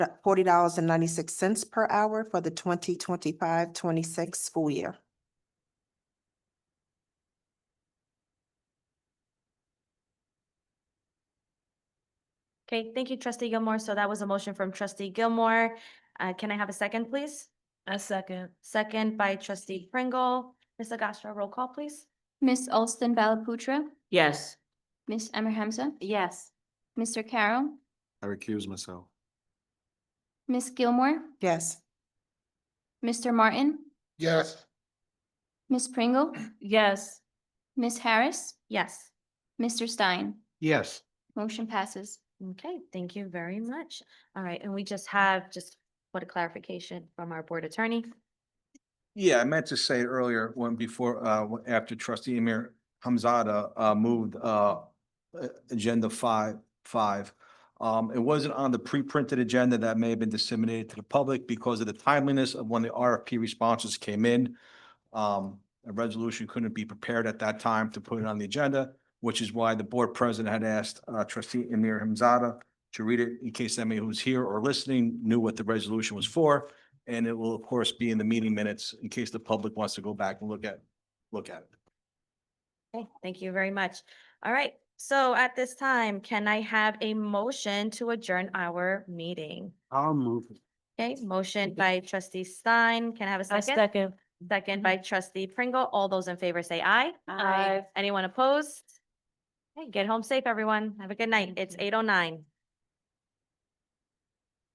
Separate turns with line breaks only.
forty dollars and ninety-six cents per hour for the 2025-26 school year.
Okay, thank you, trustee Gilmore. So that was a motion from trustee Gilmore. Uh, can I have a second, please?
A second.
Second by trustee Pringle. Ms. Agostra, roll call, please.
Miss Alston Balaputra,
Yes.
Miss Amor Hamza,
Yes.
Mr. Carroll,
I recuse myself.
Miss Gilmore,
Yes.
Mr. Martin,
Yes.
Miss Pringle,
Yes.
Miss Harris,
Yes.
Mr. Stein.
Yes.
Motion passes.
Okay, thank you very much. All right, and we just have just what a clarification from our board attorney.
Yeah, I meant to say it earlier when before, uh, when- after trustee Amir Hamzada, uh, moved, uh, uh, agenda five, five. Um, it wasn't on the pre-printed agenda that may have been disseminated to the public because of the timeliness of when the RFP responses came in. Um, a resolution couldn't be prepared at that time to put it on the agenda, which is why the board president had asked, uh, trustee Amir Hamzada to read it in case anybody who's here or listening knew what the resolution was for. And it will, of course, be in the meeting minutes in case the public wants to go back and look at, look at it.
Okay, thank you very much. All right, so at this time, can I have a motion to adjourn our meeting?
I'll move.
Okay, motion by trustee Stein. Can I have a
A
second?
second. Mm-hmm.
Second by trustee Pringle. All those in favor say aye.
Aye. Aye.
Anyone opposed? Hey, get home safe, everyone. Have a good night.
Thank
It's
you.
eight oh nine.